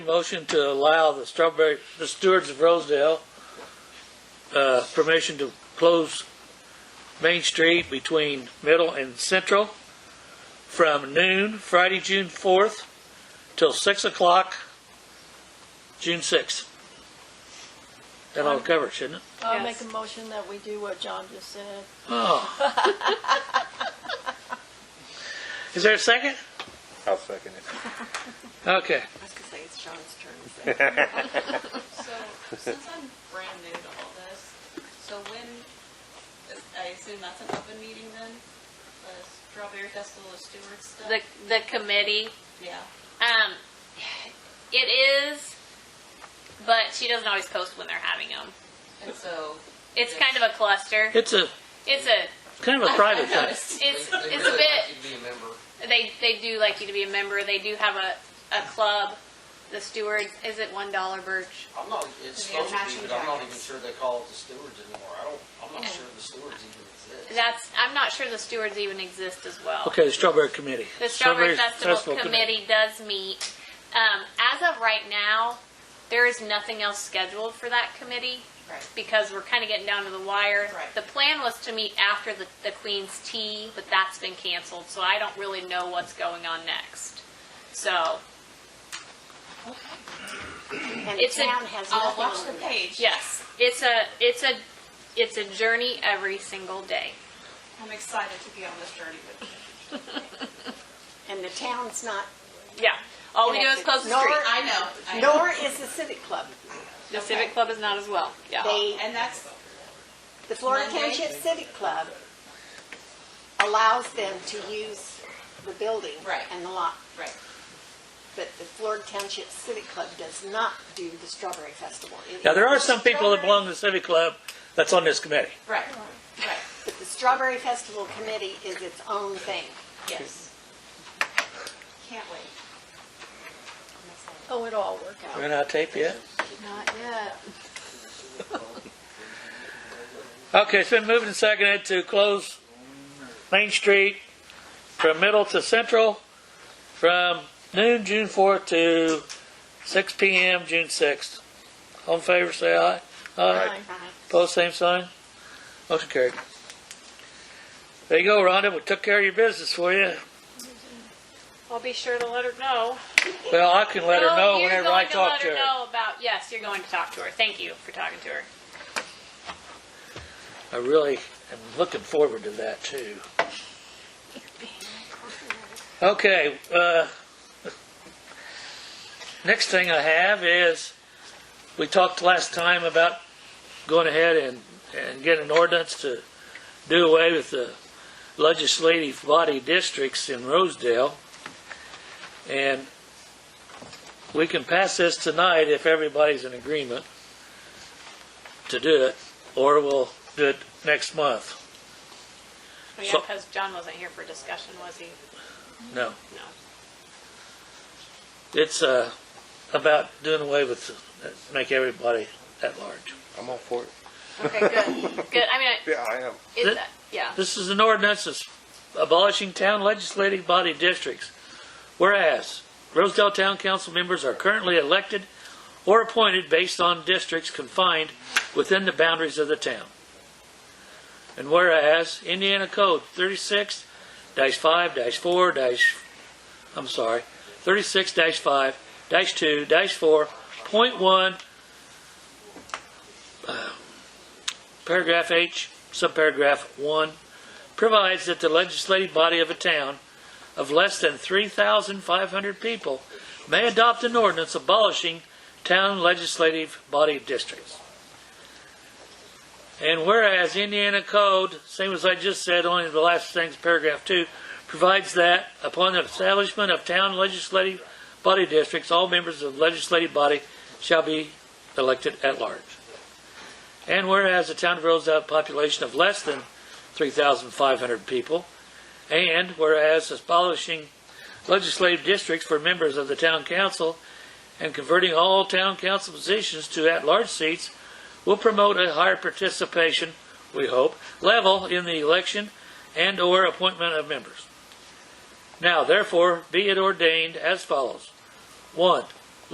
Motion to allow the Strawberry, the Stewards of Rosedale, uh, permission to close Main Street between Middle and Central from noon, Friday, June fourth, till six o'clock, June sixth. That'll cover it, shouldn't it? I'll Yes. make a motion that we do what John just said. Oh. Is there a second? I'll second it. Okay. I was gonna say it's John's turn. So, since I'm brand new to all this, so when, I assume that's an open meeting then? The Strawberry Festival of Stewards stuff? the, the committee. Yeah, Um, it is, but she doesn't always post when they're having them. and so. It's kind of a cluster. It's a, It's a, kind of a private I thing. noticed. it's, They- it's a they really like bit, you to be a member. they, they do like you to be a member. They do have a, a club. The stewards, is it one dollar birch? I'm not, it's They have supposed to matching be, but I'm not even jackets. sure they call it the stewards anymore. I don't, I'm not sure the stewards even exist. That's, I'm not sure the stewards even exist as well. Okay, the Strawberry Committee. The Strawberry Festival, Committee. Committee does meet. Um, as of right now, there is nothing else scheduled for that committee. Right. Because we're kind of getting down to the wire. Right. The plan was to meet after the, the Queen's Tea, but that's been canceled, so I don't really know what's going on next. So, And It's a- the town has I'll nothing watch on the it. page. yes, it's a, it's a, it's a journey every single day. I'm excited to be on this journey with you. And the town's not, Yeah. All we do is close the Nor- street. I know, I know. nor is the civic club. The Civic Club is not as well. Yeah. They, And that's, the Florida Monday? Township Civic Club allows them to use the building Right. and the lot, right, but the Florida Township Civic Club does not do the Strawberry Festival. It Now, there are is some people that belong to the Civic Club that's on this committee. right, right, strawberry- But the Strawberry Festival Committee is its own thing. yes. Can't wait. Oh, it'll all work out. We're not tape yet? Not yet. Okay, it's been moved and seconded to close Main Street from Middle to Central from noon, June 4th to 6 PM, June 6th. All in favor, say aye. Aye. Post same sign. Motion carried. There you go, Rhonda, we took care of your business for you. I'll be sure to let her know. Well, I can let her No, know you're whenever I going talk let to her. know about, yes, you're going to talk to her. Thank you for talking to her. I really am looking forward to that, too. Okay, uh, next thing I have is, we talked last time about going ahead and, and getting an ordinance to do away with the legislative body districts in Rosedale. And we can pass this tonight if everybody's in agreement to do it, or we'll do it next month. Oh, yeah, So- because John wasn't here for discussion, was he? No. No. It's uh, about doing away with, the- make everybody at large. I'm all for it. Okay, good. Good, I mean, Yeah, I am. it's, yeah. This is an ordinance that's abolishing town legislative body districts. Whereas Rosedale Town Council members are currently elected or appointed based on districts confined within the boundaries of the town. And whereas Indiana Code thirty-six five four I'm sorry, thirty-six five two four point one, paragraph H, subparagraph one, provides that the legislative body of a town of less than 3,500 people may adopt an ordinance abolishing town legislative body districts. And whereas Indiana Code, same as I just said, only the last thing's paragraph two, provides that upon the establishment of town legislative body districts, all members of the legislative body shall be elected at large. And whereas the town of Rosedale has a population of less than 3,500 people. And whereas abolishing legislative districts for members of the town council and converting all town council positions to at-large seats will promote a higher participation, we hope, level in the election and/or appointment of members. Now therefore, be it ordained as follows. One,